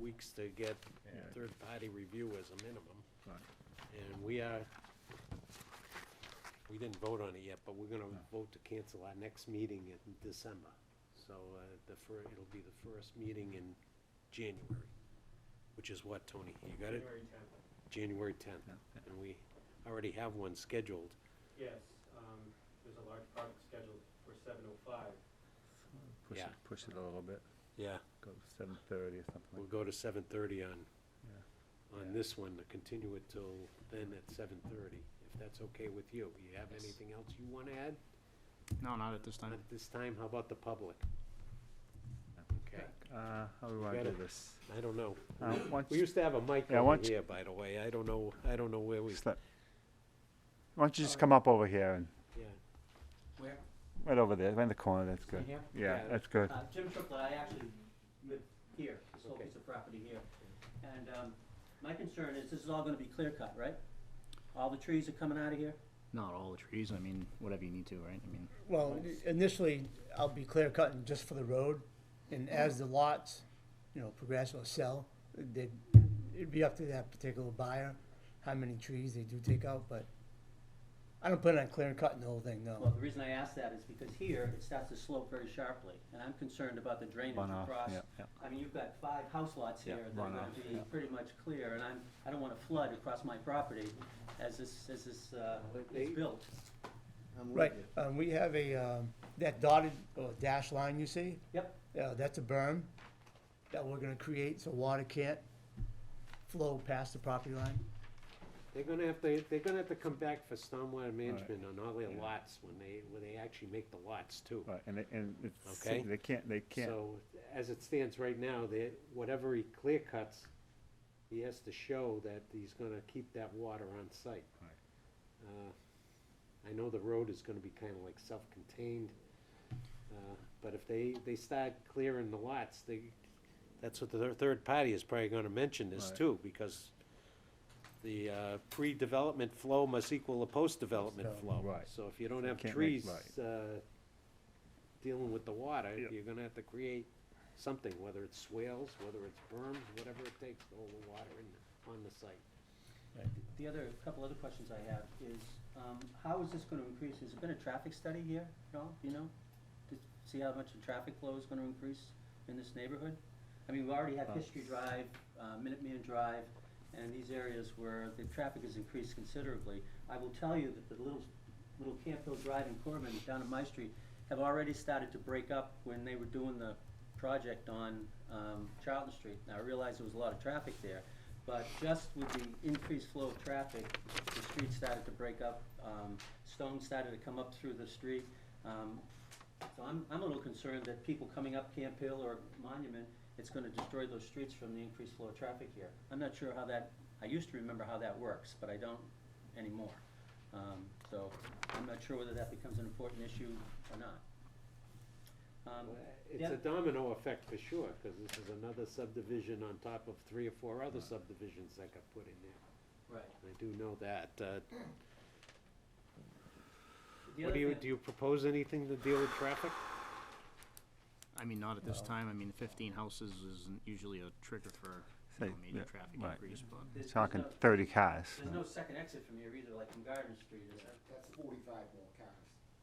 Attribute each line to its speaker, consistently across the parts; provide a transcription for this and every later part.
Speaker 1: weeks to get
Speaker 2: Yeah.
Speaker 1: third-party review as a minimum.
Speaker 2: Right.
Speaker 1: And we are, we didn't vote on it yet, but we're gonna vote to cancel our next meeting in December. So, uh, the fir, it'll be the first meeting in January, which is what, Tony? You got it?
Speaker 3: January tenth,
Speaker 1: January tenth.
Speaker 2: Yeah, yeah.
Speaker 1: And we already have one scheduled.
Speaker 3: yes, um, there's a large project scheduled for seven oh five.
Speaker 2: Push it,
Speaker 1: Yeah.
Speaker 2: push it a little bit,
Speaker 1: Yeah.
Speaker 2: go seven thirty or something
Speaker 1: We'll
Speaker 2: like.
Speaker 1: go to seven thirty on,
Speaker 2: Yeah.
Speaker 1: on this one, to continue it till then at seven thirty, if that's okay with you. You have
Speaker 4: Yes.
Speaker 1: anything else you wanna add?
Speaker 4: No, not at this time.
Speaker 1: At this time, how about the public?
Speaker 2: No.
Speaker 1: Okay,
Speaker 2: Uh, how do we wanna
Speaker 1: Gotta-
Speaker 2: do this?
Speaker 1: I don't know.
Speaker 2: Uh, once,
Speaker 1: We used to have a mic
Speaker 2: Yeah,
Speaker 1: over
Speaker 2: once-
Speaker 1: here, by the way. I don't know, I don't know where we,
Speaker 2: just let- why don't you just come up over here and,
Speaker 1: yeah.
Speaker 3: Where?
Speaker 2: right over there, right in the corner, that's good.
Speaker 3: here?
Speaker 2: Yeah,
Speaker 1: Yeah.
Speaker 2: that's good.
Speaker 3: Uh, Jim Triplett, I actually live here, this whole
Speaker 1: Okay.
Speaker 3: piece of property here. And, um, my concern is this is all gonna be clear cut, right? All the trees are coming out of here?
Speaker 4: Not all the trees, I mean, whatever you need to, right? I mean,
Speaker 5: Well, initially, I'll be clear cutting just for the road, and as the lots, you know, progress or sell, they, it'd be up to that particular buyer, how many trees they do take out, but I don't plan on clear cutting the whole thing,
Speaker 2: Oh.
Speaker 6: Well,
Speaker 5: no.
Speaker 6: the reason I ask that is because here, it starts to slope very sharply, and I'm concerned about the drainage
Speaker 2: Runoff,
Speaker 6: across.
Speaker 2: yeah, yeah.
Speaker 6: I mean, you've got five house lots
Speaker 2: Yeah,
Speaker 6: here that are gonna
Speaker 2: runoff,
Speaker 6: be
Speaker 2: yeah.
Speaker 6: pretty much clear, and I'm, I don't wanna flood across my property as this, as this, uh, is built.
Speaker 5: Right, um, we have a, um, that dotted or dash line you see,
Speaker 6: Yep,
Speaker 5: uh, that's a berm that we're gonna create so water can't flow past the property line.
Speaker 1: They're gonna have to, they're gonna have to come back for stormwater management on all their lots when they, when they actually make the lots too.
Speaker 2: Right, and, it- and it's,
Speaker 1: Okay.
Speaker 2: they can't, they can't,
Speaker 1: So, as it stands right now, that, whatever he clear cuts, he has to show that he's gonna keep that water on site.
Speaker 2: Right.
Speaker 1: Uh, I know the road is gonna be kinda like self-contained, uh, but if they, they start clearing the lots, they, that's what the thir- third party is probably gonna mention this
Speaker 2: Right.
Speaker 1: too, because the, uh, pre-development flow must equal the post-development
Speaker 5: So-
Speaker 1: flow.
Speaker 2: Right.
Speaker 1: So if you don't have
Speaker 2: Can't make-
Speaker 1: trees,
Speaker 2: right.
Speaker 1: uh, dealing with the water,
Speaker 2: Yep.
Speaker 1: you're gonna have to create something, whether it's swales, whether it's berm, whatever it takes to hold the water in, on the site.
Speaker 6: the other, couple other questions I have is, um, how is this gonna increase, has there been a traffic study here at all, you know? To see how much the traffic flow is gonna increase in this neighborhood? I mean, we already have
Speaker 2: Uh,
Speaker 6: History Drive, uh, Minuteman Drive, and these areas where the traffic has increased considerably. I will tell you that the little, little Camp Hill Drive in Corbin down on my street have already started to break up when they were doing the project on, um, Charlton Street. Now, I realize there was a lot of traffic there, but just with the increased flow of traffic, the street started to break up, um, stones started to come up through the street. Um, so I'm, I'm a little concerned that people coming up Camp Hill or Monument, it's gonna destroy those streets from the increased flow of traffic here. I'm not sure how that, I used to remember how that works, but I don't anymore. Um, so I'm not sure whether that becomes an important issue or not. Um,
Speaker 1: It's
Speaker 6: yeah.
Speaker 1: a domino effect for sure, cause this is another subdivision on top of three or four other subdivisions that got put in there.
Speaker 6: Right.
Speaker 1: I do know that, uh,
Speaker 6: The
Speaker 1: what
Speaker 6: other
Speaker 1: do you,
Speaker 6: thing-
Speaker 1: do you propose anything to deal with traffic?
Speaker 4: I mean, not at this time. I mean, fifteen houses isn't usually a trigger for, you
Speaker 2: Say,
Speaker 4: know,
Speaker 2: yeah,
Speaker 4: major traffic
Speaker 2: right.
Speaker 4: increase, but.
Speaker 6: there's- there's
Speaker 2: talking
Speaker 6: no-
Speaker 2: thirty cars.
Speaker 6: There's no second exit from here either, like from Garden Street, is there?
Speaker 7: That's forty-five more cars.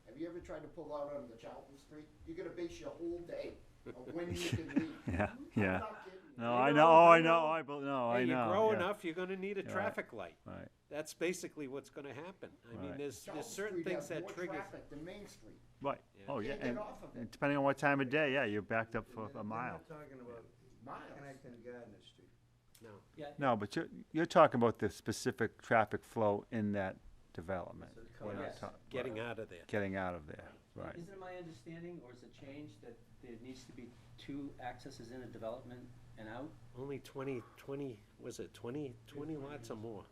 Speaker 7: Have you ever tried to pull out onto Charlton Street? You're gonna base your whole day on when you can leave.
Speaker 2: Yeah,
Speaker 7: I'm
Speaker 2: yeah.
Speaker 7: not kidding you.
Speaker 2: No, I know, I know, I, bel- no, I
Speaker 1: Hey,
Speaker 2: know.
Speaker 1: you grow
Speaker 2: yeah,
Speaker 1: enough, you're gonna need a
Speaker 2: right.
Speaker 1: traffic light.
Speaker 2: Right,
Speaker 1: That's basically what's gonna happen. I mean,
Speaker 2: Right.
Speaker 1: there's,
Speaker 7: Charlton
Speaker 1: there's certain
Speaker 7: Street
Speaker 1: things
Speaker 7: has
Speaker 1: that
Speaker 7: more
Speaker 1: triggers.
Speaker 7: traffic than Main Street.
Speaker 2: right, oh, yeah,
Speaker 7: Can't get
Speaker 2: and
Speaker 7: off of
Speaker 2: and
Speaker 7: it.
Speaker 2: depending on what time of day, yeah, you're backed up for a mile.
Speaker 8: They're not talking about
Speaker 7: Miles.
Speaker 8: Connecticut Gardner Street.
Speaker 1: No.
Speaker 6: Yeah,
Speaker 2: No, but you're, you're talking about the specific traffic flow in that development.
Speaker 8: So it
Speaker 2: We're not
Speaker 6: Yes.
Speaker 2: talk-
Speaker 1: Getting out of there.
Speaker 2: Getting out of there, right.
Speaker 6: Isn't it my understanding, or is it changed, that there needs to be two accesses in a development and out?
Speaker 1: Only 20, 20, was it 20, 20 lots or more?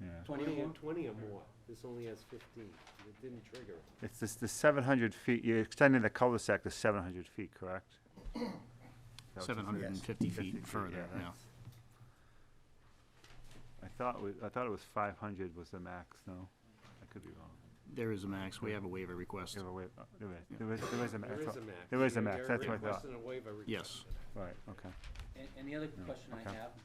Speaker 2: Yeah.
Speaker 6: Twenty or more?
Speaker 1: 20 or more. This only has 15. It didn't trigger. it.
Speaker 2: It's this, the seven hundred feet, you're extending the cul-de-sac to seven hundred feet, correct?
Speaker 4: Seven hundred and fifty feet
Speaker 2: feet,
Speaker 4: further,
Speaker 2: yeah,
Speaker 4: yeah.
Speaker 2: I thought, we- I thought it was five hundred was the max, no? I could be wrong.
Speaker 4: There is a max, we have a waiver request.
Speaker 2: There were, there was, there was, there was a max.
Speaker 1: There is a max.
Speaker 2: There is a
Speaker 1: They're-
Speaker 2: max, that's
Speaker 1: they're
Speaker 2: what I thought.
Speaker 1: requesting a waiver request.
Speaker 4: Yes.
Speaker 2: Right, okay.
Speaker 6: And, and the other question I
Speaker 2: okay.
Speaker 6: have,